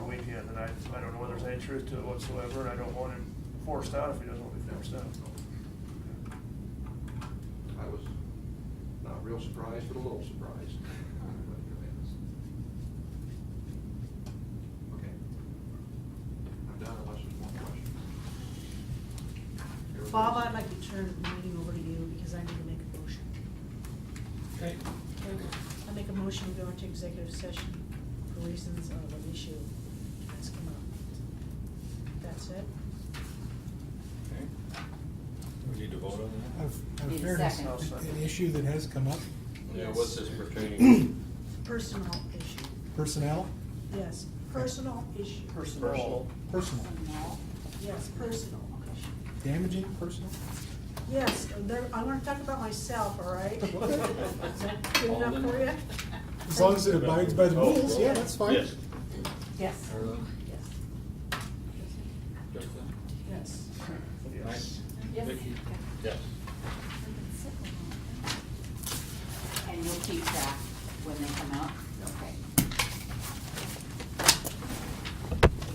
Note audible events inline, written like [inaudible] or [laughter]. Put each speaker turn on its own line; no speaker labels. any truth to it whatsoever, and I don't want him forced out if he doesn't want to be forced out.
I was not real surprised, but a little surprised. Okay. I'm done unless there's more questions. Everybody
Bob,
else?
I'd like to turn the meeting over to you because I need to make a motion.
Okay.
I make a motion to go into executive session for reasons of an issue that's come up. That's it?
Okay. We need to vote on that?
Of of
Need a
fairness,
second.
an an issue that has come up,
Yeah,
Yes.
what's this pertaining?
Personal issue,
personnel,
yes, personal issue,
Personnel.
personal,
yes, personal issue.
damaging personal.
Yes, uh, there, I wanna talk about myself,
[laughs]
all right? Is that good enough for you?
As long as it abides by the
Oh,
rules, yeah, that's fine.
Yes.
Yes.
[clears throat]
Yes.
Justin?
Yes.
Yes.
Yes.
Vicki? Yes.
And you'll keep that when they come out? Okay.